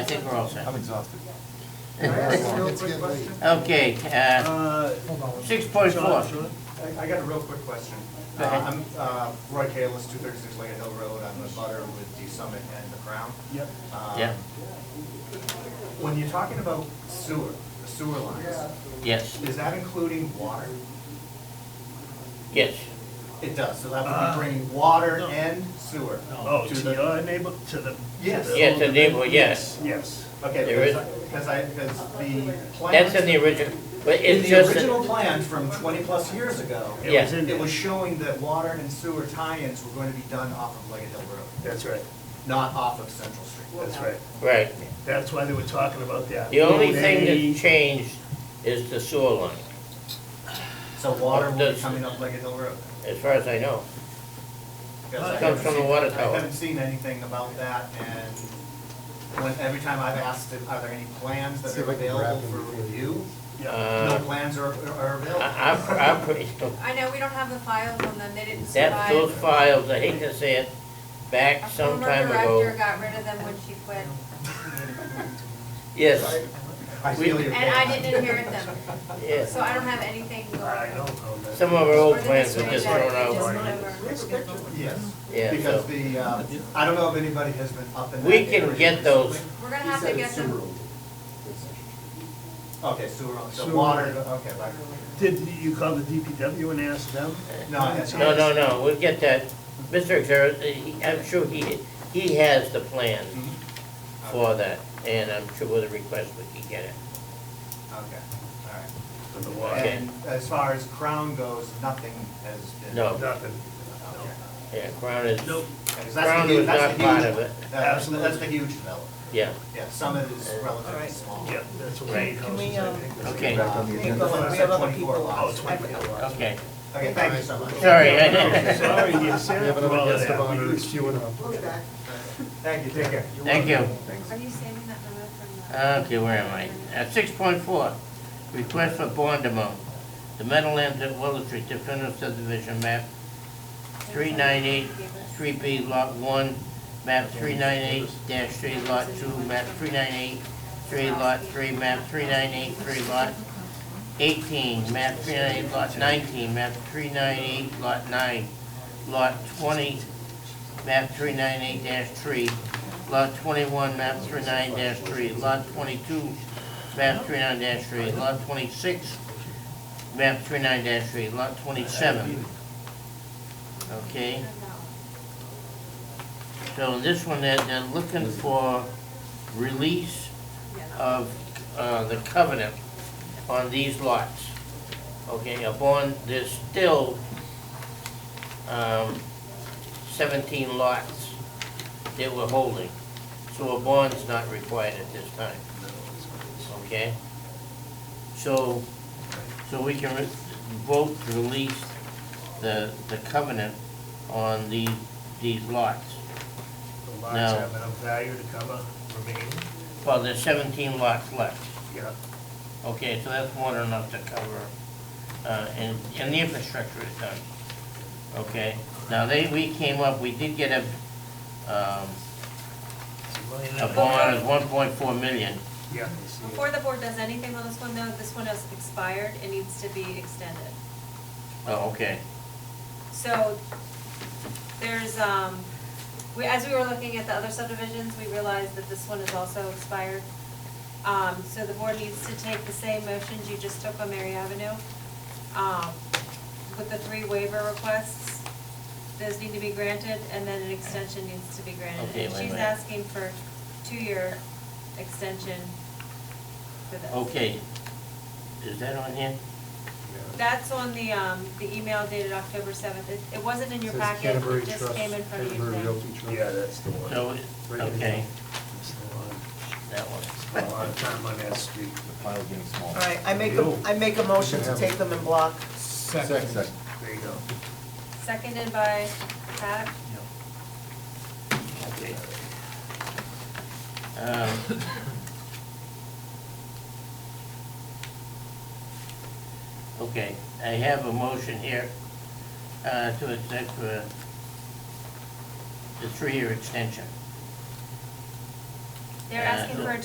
We're all set. I'm exhausted. It's getting late. Okay, uh, Uh, six point four. John, John, I, I got a real quick question. Go ahead. Uh, I'm, uh, Roy Kalis, two thirty-six Lake Hill Road, I'm the butter with D Summit and the Crown. Yep. Um, Yeah. When you're talking about sewer, sewer lines, Yes, is that including water? yes. It does, so that would Uh, be bringing water no. and sewer. Oh, to to the- your neighbor, to the. to Yes. the- Yes, the neighbor, yes. Yes. There Okay, is- because I, because the That's in plan, the original, but in it's the just, original that- plan from twenty-plus years ago, It Yeah. was in it there. was showing that water and sewer tie-ins were going to be done off of Lake Hill Road. That's right, not off of Central Street. that's right. right. That's why they were talking about that. The only Road thing A, that changed is the sewer line, So water will be Does- coming up Leggett Hill Road. as far as I know. Because I Comes haven't from the seen- water I tower. haven't seen anything about that, and when, every time I've asked, if, are there any plans that See if are I can grab available for them before you- review? Yeah, No Uh, plans are, are I, available. I'm, I'm pretty, I know we don't have the files on them, they didn't that, those survive. files, I hate to say it, back Our some former time director ago. got rid of them when she quit, Yes, I feel your and I pain. didn't inherit them, yes. so I don't have anything going. I don't know that. Some of our old Or the plans were mystery just that thrown we just out. remember. Yes, Yeah, because so the, uh, I don't know if anybody has been up in that we can area get those, recently. We're gonna have to get them, Okay, sewer, on- so Sewer. water, okay, right. Did you call the DPW and ask them? No, I haven't. no, no, no, we'll get that. Mr. Xer, he- I'm sure he, he has the plan Mm-hmm. for that, and I'm sure with a request we can get it. Okay, all right. For the water? And as far as Crown goes, nothing has been. No. Nothing. Okay. Yeah, Crown is, Nope. Because that's Crown the, was huge- not that's the part huge, of it, that's, that's the huge development. yeah. Yeah, Summit is relatively small. Yeah, that's what we. Can we, um, Okay. Back on the Okay, agenda. go on. We have other people. Oh, it's Okay, Okay, thank you so much. sorry. Sorry, you We said have for another all of guest of honor that. who's queuing up. Thank you, take care. Thank you. are you saving that number from the? Okay, where am I? At six point four, request for bond amount. The Meadowlands at Willow Street definitive subdivision map, three nine eight, three B lot one, map three nine eight dash three lot two, map three nine eight, three lot three, map three nine eight, three lot eighteen, map three nine eight lot nineteen, map three nine eight lot nine, lot twenty, map three nine eight three, lot twenty-one, map three nine three, lot twenty-two, map three nine three, lot twenty-six, map three nine three, lot twenty-seven. Okay, so this one, they're, they're looking for release of, uh, the covenant on these lots. Okay, upon, there's still, um, seventeen lots that we're holding. So a bond's not required at this time, okay? So, so we can re- vote to release the, the covenant on these, these lots. The No. lots have enough value to cover remaining, Well, there's seventeen lots left. yeah. Okay, so that's more than enough to cover, uh, and, and the infrastructure is done. Okay, now they, we came up, we did get a, um, It's a million a and- bond of one point four million. Yeah. Before the board does anything on this one, though, this one has expired, it needs to be extended. Oh, okay, So there's, um, we, as we were looking at the other subdivisions, we realized that this one is also expired. Um, so the board needs to take the same motions you just took on Mary Avenue, um, with the three waiver requests. Those need to be granted and then an extension needs to be granted. Okay, And wait a She's minute. asking for two-year extension for this. okay. Is that on here? That's on the, um, the email dated October seventh. It, it wasn't in your Says packet, Canterbury it just Trust, came in front of you Canterbury today. Realty Trust. Yeah, that's the one. So, okay, That's the one. that one. A lot of time on that street. The pile's getting All smaller. right, I make, a I make a motion to take them in block. Second. There you go. Seconded by Pat. Okay. Um, Okay, I have a motion here uh, to accept uh, the three-year extension. They're Uh, asking for a